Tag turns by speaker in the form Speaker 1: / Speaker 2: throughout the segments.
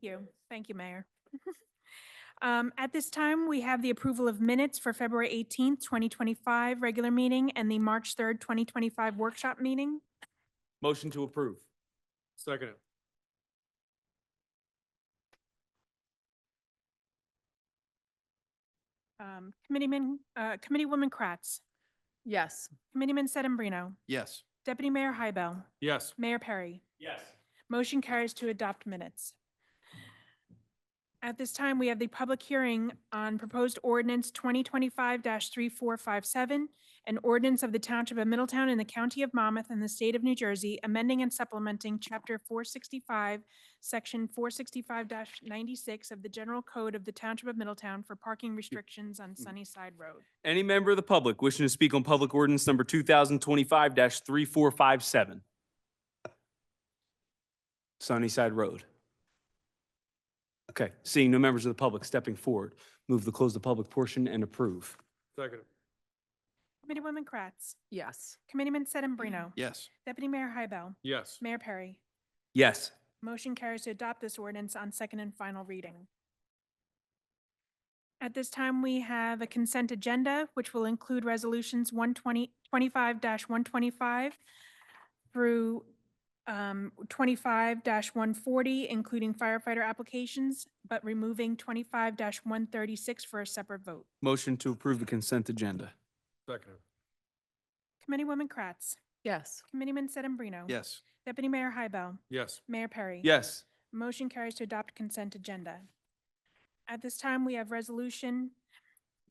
Speaker 1: you. Thank you, Mayor. Um, At this time, we have the approval of minutes for February 18th, 2025, regular meeting, and the March 3rd, 2025 workshop meeting.
Speaker 2: Motion to approve.
Speaker 3: Second.
Speaker 1: Um, Committeeman, uh, Committeewoman Kratz,
Speaker 4: Yes.
Speaker 1: Committeeman Sedambrino,
Speaker 2: Yes.
Speaker 1: Deputy Mayor Hybel,
Speaker 3: Yes.
Speaker 1: Mayor Perry.
Speaker 2: Yes.
Speaker 1: Motion carries to adopt minutes. At this time, we have the public hearing on proposed ordinance 2025-3457, an ordinance of the Township of Middletown in the County of Monmouth and the State of New Jersey, amending and supplementing Chapter 465, Section 465-96 of the General Code of the Township of Middletown for parking restrictions on Sunnyside Road.
Speaker 2: Any member of the public wishing to speak on public ordinance number two thousand twenty-five three four five seven? Sunnyside Road. Okay, seeing no members of the public stepping forward, move to close the public portion and approve.
Speaker 3: Second.
Speaker 1: Committeewoman Kratz,
Speaker 4: Yes.
Speaker 1: Committeeman Sedambrino,
Speaker 2: Yes.
Speaker 1: Deputy Mayor Hybel,
Speaker 3: Yes.
Speaker 1: Mayor Perry.
Speaker 2: Yes.
Speaker 1: Motion carries to adopt this ordinance on second and final reading. At this time, we have a consent agenda, which will include resolutions 120 25-125 through um, 25-140, including firefighter applications, but removing 25-136 for a separate vote.
Speaker 2: Motion to approve the consent agenda.
Speaker 3: Second.
Speaker 1: Committeewoman Kratz,
Speaker 4: Yes.
Speaker 1: Committeeman Sedambrino.
Speaker 2: Yes.
Speaker 1: Deputy Mayor Hybel,
Speaker 3: Yes.
Speaker 1: Mayor Perry.
Speaker 2: Yes.
Speaker 1: Motion carries to adopt consent agenda. At this time, we have Resolution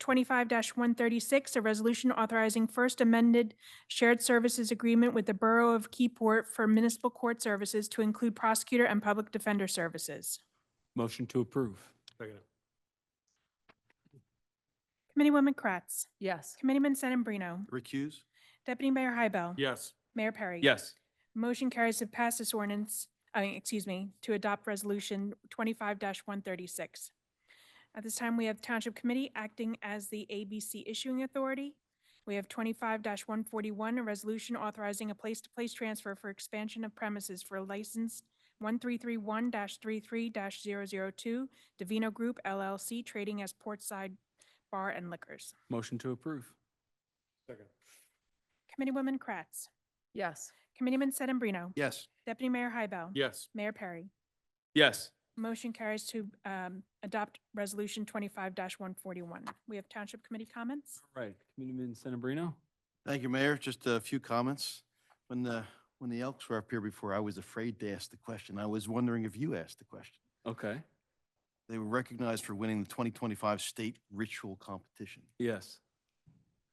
Speaker 1: 25-136, a resolution authorizing first amended shared services agreement with the Borough of Keyport for municipal court services to include prosecutor and public defender services.
Speaker 2: Motion to approve.
Speaker 3: Second.
Speaker 1: Committeewoman Kratz,
Speaker 4: Yes.
Speaker 1: Committeeman Sedambrino,
Speaker 2: Recuse?
Speaker 1: Deputy Mayor Hybel.
Speaker 3: Yes.
Speaker 1: Mayor Perry.
Speaker 2: Yes.
Speaker 1: Motion carries to pass this ordinance, I mean, excuse me, to adopt Resolution twenty-five one thirty-six. At this time, we have Township Committee acting as the ABC issuing authority. We have twenty-five one forty-one, a resolution authorizing a place-to-place transfer for expansion of premises for licensed one-three-three-one 33 2 Davino Group LLC trading as Portside Bar and Liquors.
Speaker 2: Motion to approve.
Speaker 3: Second.
Speaker 1: Committeewoman Kratz,
Speaker 4: Yes.
Speaker 1: Committeeman Sedambrino,
Speaker 2: Yes.
Speaker 1: Deputy Mayor Hybel.
Speaker 3: Yes.
Speaker 1: Mayor Perry.
Speaker 2: Yes.
Speaker 1: Motion carries to um, adopt Resolution twenty-five one forty-one. We have Township Committee comments.
Speaker 2: All right, Committeeman Sedambrino?
Speaker 5: Thank you, Mayor. Just a few comments. When the, when the Elks were up here before, I was afraid to ask the question. I was wondering if you asked the question.
Speaker 2: Okay.
Speaker 5: They were recognized for winning the 2025 state ritual competition.
Speaker 2: Yes.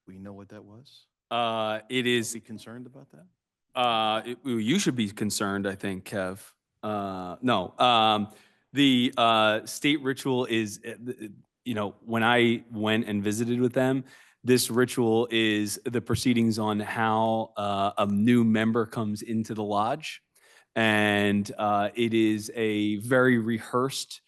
Speaker 5: We know what that was?
Speaker 2: Uh, it
Speaker 5: Is
Speaker 2: is
Speaker 5: he concerned about that?
Speaker 2: Uh, it- well, you should be concerned, I think, Kev. Uh, no, um, the uh, state ritual is, uh, th- th- you know, when I went and visited with them, this ritual is the proceedings on how uh, a new member comes into the lodge, and uh, it is a very rehearsed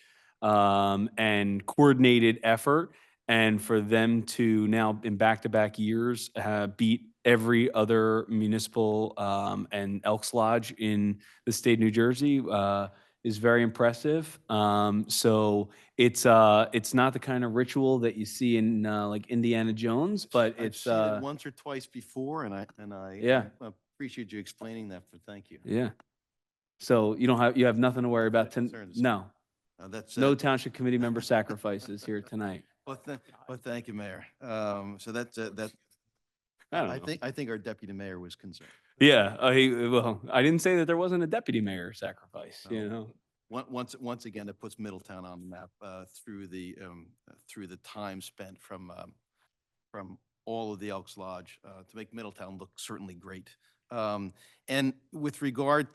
Speaker 2: um, and coordinated effort. And for them to now in back-to-back years, uh, beat every other municipal, um, and Elks Lodge in the state of New Jersey, uh, is very impressive. Um, so it's, uh, it's not the kind of ritual that you see in, uh, like Indiana Jones, but
Speaker 5: I've
Speaker 2: it's,
Speaker 5: seen it
Speaker 2: uh,
Speaker 5: Once or twice before, and I, and I.
Speaker 2: Yeah.
Speaker 5: I Appreciate you explaining that, but thank you.
Speaker 2: yeah. So you don't have, you have nothing to worry about.
Speaker 5: Nothing to
Speaker 2: ton-
Speaker 5: concern us.
Speaker 2: No,
Speaker 5: Uh, That's.
Speaker 2: no
Speaker 5: uh,
Speaker 2: township committee member sacrifices here tonight.
Speaker 5: Well, tha- well, thank you, Mayor. Um, So that's, uh, that,
Speaker 2: I don't
Speaker 5: I
Speaker 2: know.
Speaker 5: think, I think our deputy mayor was concerned.
Speaker 2: Yeah, I, well, I didn't say that there wasn't a deputy mayor sacrifice, you
Speaker 5: No.
Speaker 2: know?
Speaker 5: Once, once, once again, it puts Middletown on the map uh, through the, um, uh, through the time spent from, um, from all of the Elks Lodge uh, to make Middletown look certainly great. Um, And with regard